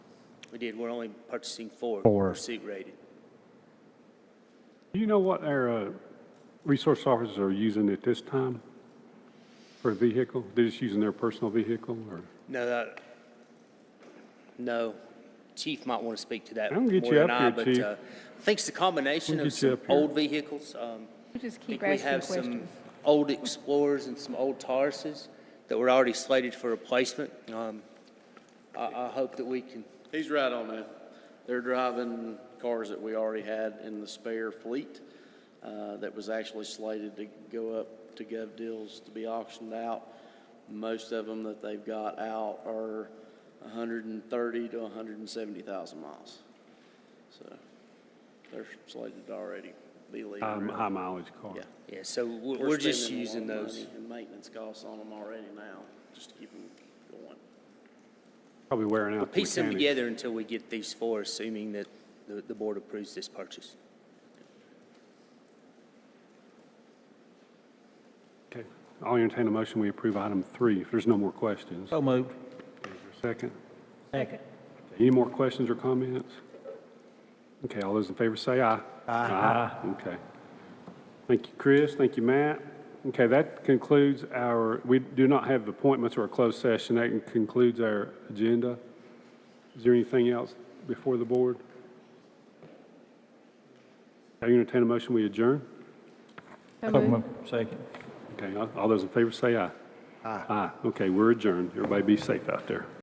We did, we're only purchasing four. Four. Pursuit rated. Do you know what our uh, resource officers are using at this time for a vehicle? They're just using their personal vehicle, or? No, that, no. Chief might want to speak to that I more can get you than up I, here, but Chief. uh, I think it's the combination We'll of get you some up here. old vehicles. um, We just I think keep we asking have some questions. old Explorers and some old Tauruses that were already slated for replacement. Um, I, I hope that we can, He's right on that. They're driving cars that we already had in the spare fleet uh, that was actually slated to go up to gov deals to be auctioned out. Most of them that they've got out are 130 to 170,000 miles. So they're slated to already be leaving. Um, High mileage car. Yeah. Uh, yeah, so we're, We're we're just spending a lot using of those. money And maintenance costs on them already now, just to keep them going. Probably wearing out. the Piece them mechanic. together until we get these four, assuming that the, the board approves this purchase. Okay. I'll entertain a motion, we approve item three, if there's no more questions. So moved. Is there a Second. Second. Any more questions or comments? Okay, all those in favor say aye. Aye. Okay. Thank you, Chris. Thank you, Matt. Okay, that concludes our, we do not have appointments or a closed session. That concludes our agenda. Is there anything else before the board? I entertain a motion, we adjourn. So moved. Second. Okay, all all those in favor say aye. Aye. Aye. Okay, we're adjourned. Everybody be safe out there.